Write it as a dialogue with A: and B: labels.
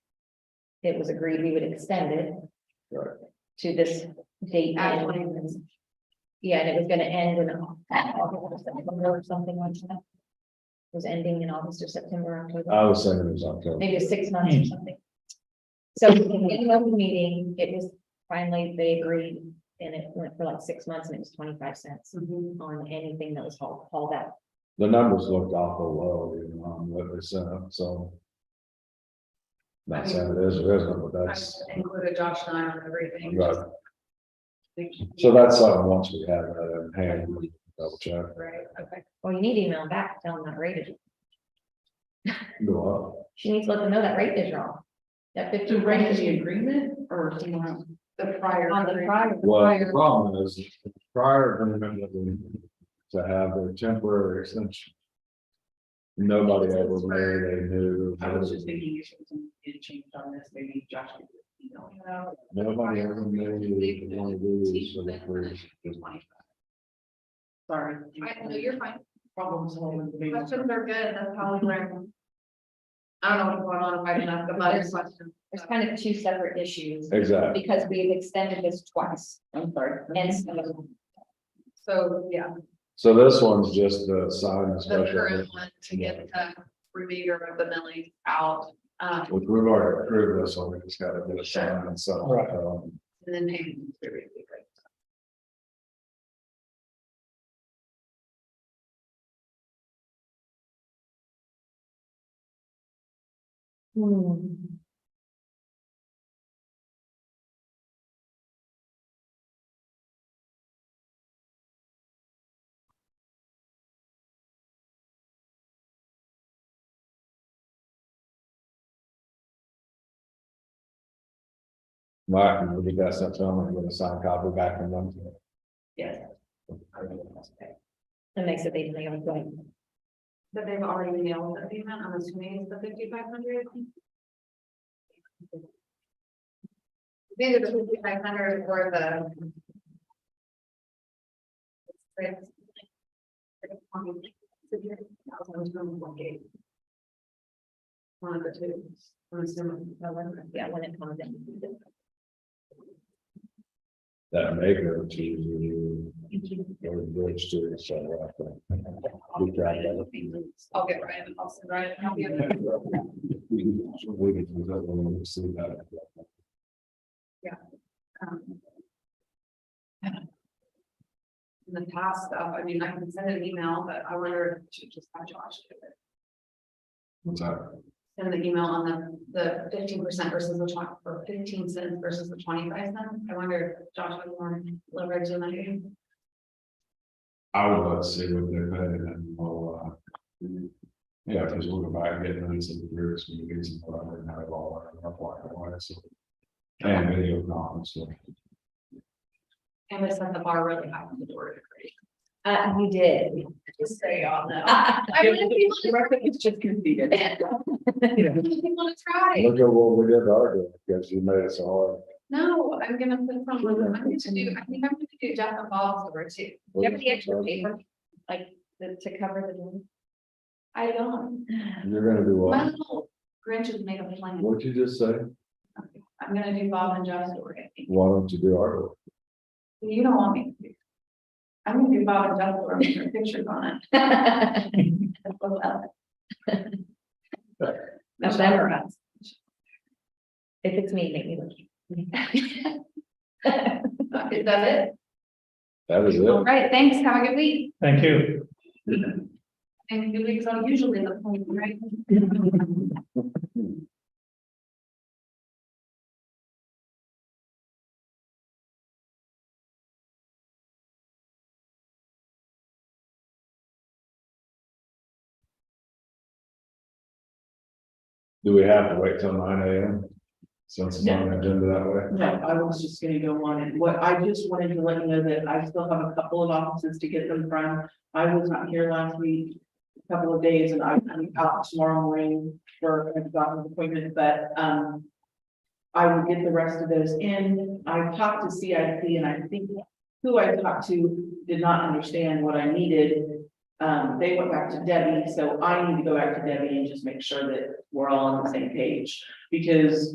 A: it was agreed we would extend it.
B: Right.
A: To this date.
C: At
A: and-
C: 20.
A: Yeah, and it was gonna end in August or September or something like that. It Was ending in August or September, October,
B: I was thinking it was October.
A: maybe it was six months or something. So in the open meeting, it was finally, they agreed, and it went for like six months and it was twenty-five cents
C: Mm-hmm.
A: on anything that was hauled, hauled out.
B: The numbers looked awful low, you know, on what they sent up, so. Not saying it is or isn't, but
C: I
B: that's,
C: included Josh and I on everything.
B: Right.
C: just think-
B: so that's something, once we have that in hand, we double check,
C: Right, okay.
A: Well, you need to email back, tell them that rate is,
B: go
A: she needs to let them know that rate is wrong. That
C: To
A: fifteen
C: bring
A: rate is.
C: the agreement or someone? The prior. On the prior.
B: up. Well, the problem is, the prior agreement that we- to have their temporary extension. Nobody ever made a new,
C: I was just thinking you should get a change on this, maybe Josh. could, You know, you know.
B: nobody ever made one of these for the first.
C: Sorry.
D: I know, you're fine.
C: Problems. solving, maybe.
D: Questions are good, that's how we learn. I don't know what's going on, if I didn't ask about your question.
A: There's kind of two separate issues,
B: Exactly,
A: because we've extended this twice,
C: I'm sorry.
A: and so
D: So, yeah,
B: so this one's just the sign and
D: the
B: special,
D: current one to get the remainder of the milling out, um,
B: which we've already approved this, so we just gotta get a sign and so. um,
D: and then. payment to be great.
A: Hmm.
B: Martin, would you guys have time to get a signed copy back from them?
C: Yes.
A: That makes it even, I'm going,
D: That they've already nailed the payment, I'm assuming it's the fifty-five hundred. Either the fifty-five hundred or the. One of the two, I'm assuming.
A: yeah, when it comes in.
B: That maker to. Or bridge to, so. I think. We tried that.
D: I'll get Ryan, I'll send Ryan. a copy of it.
B: We can- we can do that when we see that.
D: Um, In the past stuff, I mean, I can send an email, but I wonder if to just have Josh do it.
B: What's that?
D: Send the email on the, the fifteen percent versus the twenty, or fifteen cents versus the twenty-five cent. I wonder if Josh would want to leverage in that. game.
B: I would love to see what they're paying and we'll, uh. Yeah, because we'll go back and get them some years, we get some, product and have it all, our black and white, so. And video comments, so.
D: And they sent the bar really high on the door.
A: Uh, you did.
D: Just say "Oh, on that.
A: Ah,
D: I really people,
C: She reckons it's just conceded.
D: people want to try.
B: Look at what we did to our, day, because you made it so hard.
D: No, I'm gonna put from, I'm gonna do, I think I'm gonna do Jeff and Bob's over too.
A: Do you have any extra paper, like, the- to cover the room?
D: I don't,
B: You're gonna do
D: my
B: what?
D: little Grinch has made a plan.
B: What'd you just say?
D: I'm gonna do Bob and John's story. I think.
B: Why don't you do our? work?
D: You don't want me to. do- I'm gonna do Bob and John's story, with their pictures on it. That's what I'll-
A: That's better. If it's me, make me look.
D: Is that it?
B: That is
D: All
B: it.
D: right, thanks, have a good week.
E: Thank you.
D: And good weeks are usually the point, right?
B: Do we have to wait till nine AM? Since it's on the agenda that way?
C: No, I was just gonna go on and what I just wanted to let you know that I still have a couple of offices to get them from. I was not here last week, a couple of days and I'm I'm out tomorrow morning for a doctor's appointment, but, um. I will get the rest of those in. I talked to CIP and I think who I talked to did not understand what I needed. Um, they went back to Debbie, so I need to go back to Debbie and just make sure that we're all on the same page because